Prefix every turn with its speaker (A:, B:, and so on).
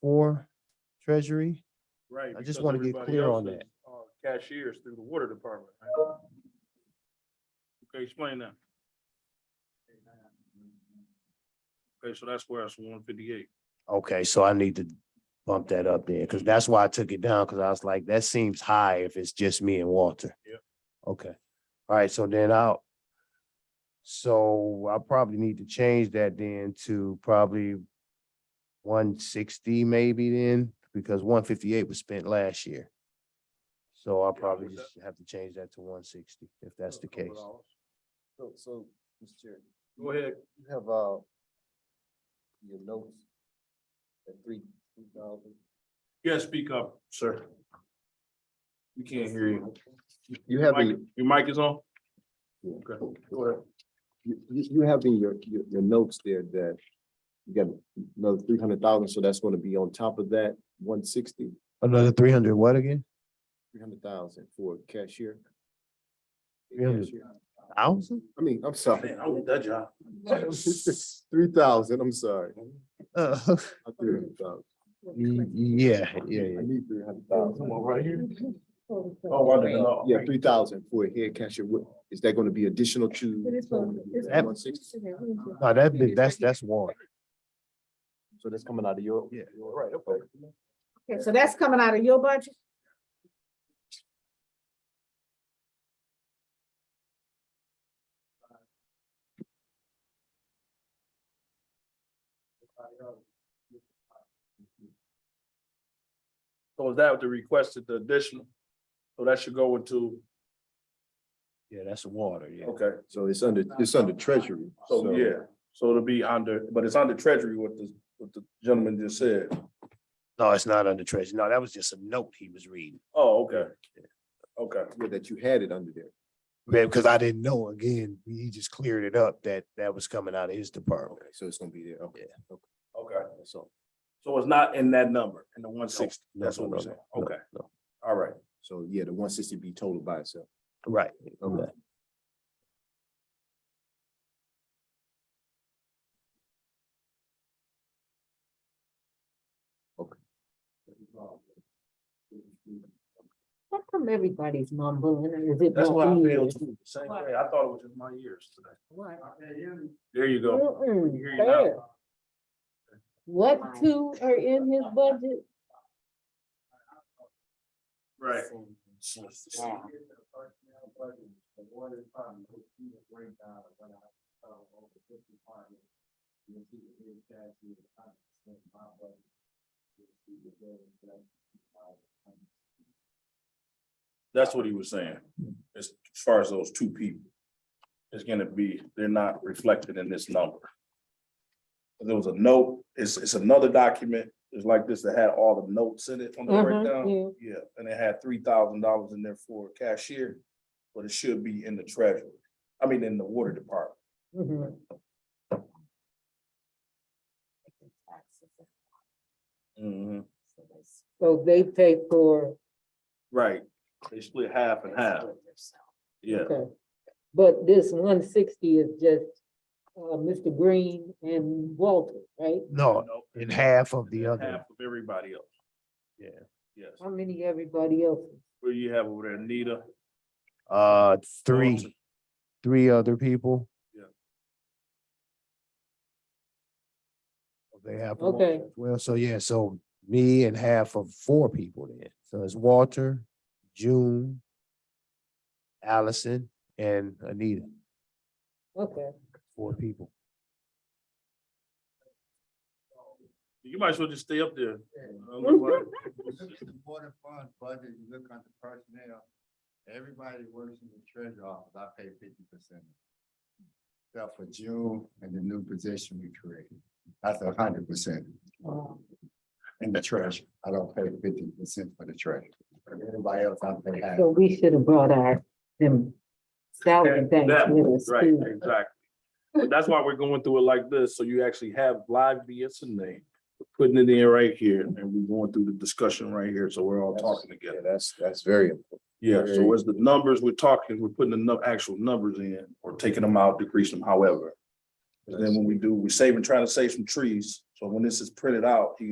A: for treasury?
B: Right.
A: I just
B: because
A: wanna get
B: everybody
A: clear
B: else
A: on
B: is,
A: that.
B: uh, Cashiers through the water department. Okay, explain that. Okay, so that's where it's one fifty-eight.
A: Okay, so I need to bump that up there, because that's why I took it down, because I was like, that seems high if it's just me and Walter.
B: Yep.
A: Okay, all right, so then I'll. So I probably need to change that then to probably one sixty maybe then, because one fifty-eight was spent last year. So I'll
B: Yeah,
A: probably
B: with
A: just have to change that to one sixty, if that's the case.
C: So, so, Mr. Chair,
B: Go ahead.
C: you have, uh, your notes at three, three thousand.
B: Yeah, speak up, sir. We can't hear you.
C: You have
B: Mic-
C: the,
B: Your mic is on?
C: Yeah.
B: Okay, go ahead.
C: you, you you have in your, your, your notes there that you got another three hundred thousand, so that's gonna be on top of that, one sixty,
A: Another three hundred what again?
C: three hundred thousand for cashier.
A: Yeah.
C: Cashier.
A: Thousand?
C: I mean, I'm sorry,
B: Man, I want that job.
C: three thousand, I'm sorry.
A: Uh,
C: Not 300,000.
A: y- Yeah, yeah, yeah.
C: I need three hundred thousand.
B: Uh, Come on, right here.
D: Oh,
B: Oh, I didn't know.
C: Yeah, three thousand for a head cashier, what, is that gonna be additional to?
D: It is one- it's
A: That-
C: One sixty?
A: No, that, be- that's, that's one.
C: So that's coming out of your?
A: Yeah.
C: your- Right, okay.
D: Okay, so that's coming out of your budget?
B: So is that the requested the additional? So that should go into,
A: Yeah, that's water, yeah.
B: okay,
C: So it's under, it's under treasury.
B: so yeah, so it'll be under, but it's under treasury what the, what the gentleman just said.
A: No, it's not under treasure. No, that was just a note he was reading.
B: Oh, okay. Okay,
C: yeah, That you had it under there.
A: Yeah, because I didn't know, again, he just cleared it up that that was coming out of his department.
C: So it's gonna be there, okay.
B: okay.
C: So,
B: So it's not in that number, in the one sixty,
A: No,
B: that's
A: no,
B: what we're
A: no,
B: saying.
A: no,
B: Okay,
A: no.
B: all right.
C: so yeah, the one sixty be total by itself.
A: Right.
C: Okay.
A: Okay.
D: How come everybody's mumbling? and Is it?
B: That's what I
D: me?
B: feel too, the same way. I thought it was just my ears today.
D: What?
B: There you go.
D: Mm-mm,
B: Hear you
D: fair.
B: now.
D: What two are in his budget?
B: Right. That's what he was saying, as far as those two people. It's gonna be, they're not reflected in this number. There was a note, it's, it's another document, it's like this that had all the notes in it on the
D: Mhm,
B: breakdown. Yeah, and it had three thousand dollars in there for cashier, but it should be in the treasury, I mean, in the water department.
D: Mhm.
B: Mm-hmm,
D: So they pay for.
B: Right, they split half and half, yeah.
D: Okay. But this one sixty is just, uh, Mr. Green and Walter, right?
A: No, in half of the
B: And then
A: other.
B: Half of everybody else.
A: Yeah.
B: Yes,
D: How many everybody else?
B: where you have over there, Nita.
A: Uh, three, three other people.
B: Yeah.
A: They have.
D: Okay.
A: Well, so yeah, so me and half of four people then. So it's Walter, June, Allison, and Anita,
D: Okay,
A: four people.
B: You might as well just stay up there.
E: The water fund budget, you look at the personnel, everybody works in the treasure office, I pay fifty percent. Except for June and the new position we created, that's a hundred percent
D: um,
E: in the treasure, I don't pay fifty percent for the treasure. Everybody else, I pay half.
D: so we should have brought our, them salary
B: And
D: banks
B: that-
D: with us
B: Right,
D: too.
B: exactly. But that's why we're going through it like this, so you actually have live BS and name. We're Putting it in right here, and we're going through the discussion right here, so we're all talking
C: Yeah,
B: together.
C: that's, that's very important.
B: Yeah, so as the numbers we're talking, we're putting the nu- actual numbers in, or taking them out, decreasing them however. And then when we do, we save and try to save some trees, so when this is printed out, you